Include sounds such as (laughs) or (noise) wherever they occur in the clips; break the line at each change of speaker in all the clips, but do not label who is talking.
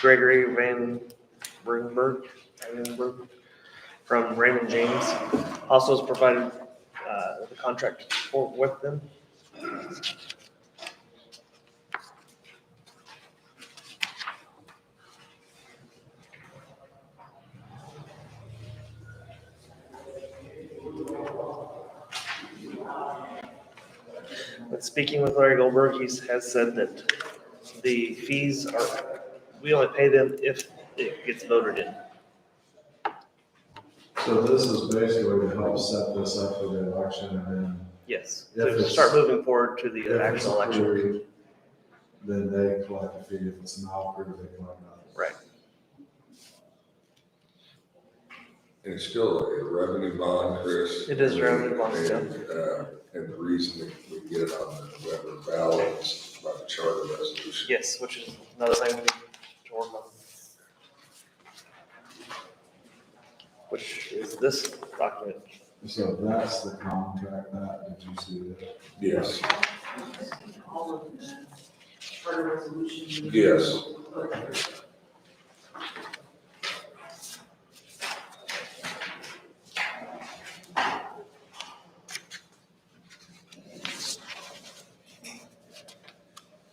Gregory Van Rudenberg, Rudenberg from Raymond James. Also has provided uh, the contract for with them. But speaking with Larry Goldberg, he's has said that the fees are, we only pay them if it gets voted in.
So this is basically to help set this up for the election and then.
Yes,
If
to
it's-
start moving forward to
if
the
it's
actual election.
approved, Then they collect the fee. If it's not approved, they collect nothing.
Right.
And it's still a revenue bond, Chris.
It is a revenue bond, yeah.
And, uh, And the reason we we get it on the November ballot is by the charter resolution.
Yes, which is another thing we need to work on. Which is this document.
So that's the contract that, did you see that?
Yes,
all of the charter resolutions.
yes.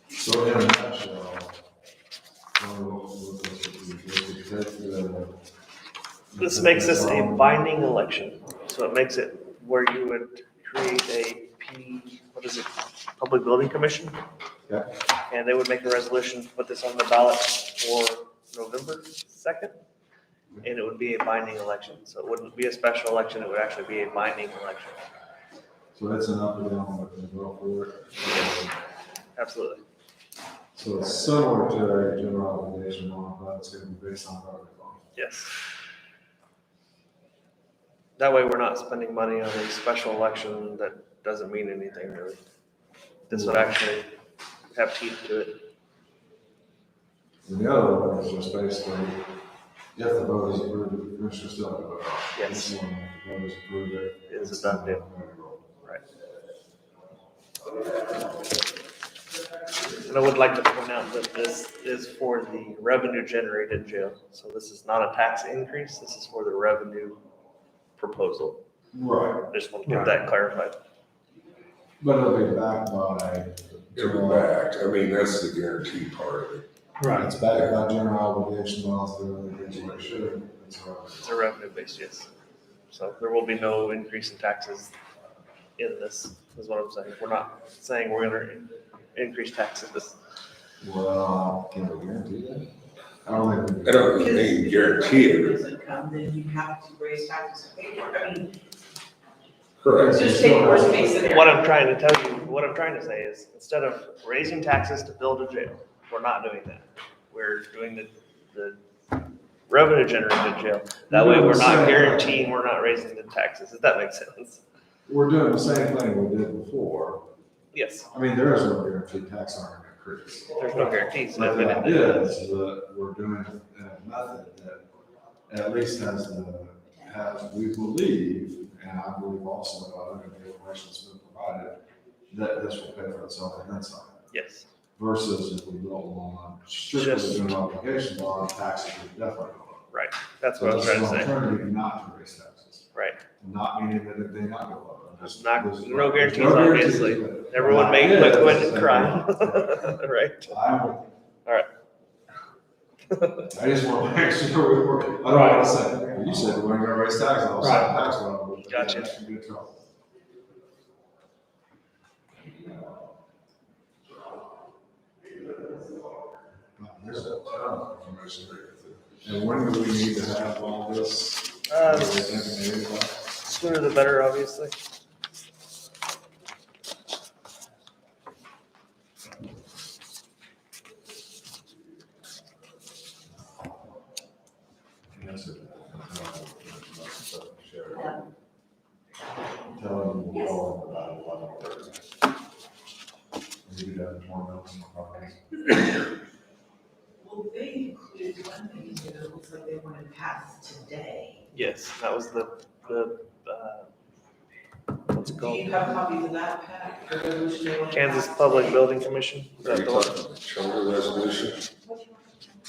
So in a nutshell, um, what this would be, this would take the-
This makes this a binding election, so it makes it where you would create a P, what is it, Public Building Commission?
Yeah.
And they would make a resolution to put this on the ballot for November second. And it would be a binding election, so it wouldn't be a special election, it would actually be a binding election,
So it's an up or down, what they go for it.
absolutely.
So it's similar to a general obligation bond, but it's gonna be based on property law.
Yes. That way, we're not spending money on a special election that doesn't mean anything really. This would actually have teeth to it.
And the other one is just basically, if the vote is approved, the commissioner still have to vote.
Yes.
This one, if the vote is approved, it-
It's a done deal. Right. And I would like to point out that this is for the revenue generated jail. So this is not a tax increase. This is for the revenue proposal.
Right,
I just want to get that clarified.
but it'll be backed by.
It'll be back. I mean, that's the guaranteed part of it.
Right. It's backed by general obligation laws, the other things we should. It's
It's
right.
a revenue base, yes. So there will be no increase in taxes in this, is what I'm saying. We're not saying we're gonna in- increase taxes. This-
Well, can we guarantee that? I don't think. we
I
can.
don't mean guarantee it.
Doesn't come, then you have to raise taxes to pay for it. I mean,
Correct.
just take worst case scenario.
What I'm trying to tell you, what I'm trying to say is, instead of raising taxes to build a jail, we're not doing that. We're doing the, the revenue generated jail. That way, we're not guaranteeing we're not raising the taxes, if that makes sense.
We're doing the same thing we did before.
Yes,
I mean, there is no guarantee tax aren't gonna increase.
there's no guarantees.
But
that
the
we didn't do
idea
that.
is that we're doing a a method that at least has the, has, we believe, and I believe also about it, and the information that's been provided, that this will pay for itself on that side.
Yes,
Versus if we build on strictly
Just-
doing obligation law, taxes are different.
that's what I was trying to say.
Alternative not to raise taxes,
Right,
not meaning that they not go up. I'm just-
Not-
there's-
no guarantees,
there's no guarantees,
obviously.
but-
everyone may
Yeah,
quit, quit
that's
and
the
cry, (laughs)
thing.
right?
I'm with
All right.
(laughs) I just want to make sure we work, I don't want to say, you said we're gonna raise taxes, I'll say tax level. but
Gotcha.
That should be a trouble. Wow, There's a ton of information there. And when do we need to have all this?
Uh,
Are we thinking maybe about-
Sooner the better, obviously.
Yes, it- Tell them we'll call about eleven thirty. Maybe that tomorrow, no, it's no problem.
Well, they included one thing, you know, it looks like they want to pass today.
Yes, that was the, the, uh, what's it
Do
called?
you have copies of that, Pat? The resolution they want to
Kansas
pass
Public
today?
Building Commission. Is
Are you
that the one?
talking about the charter resolution?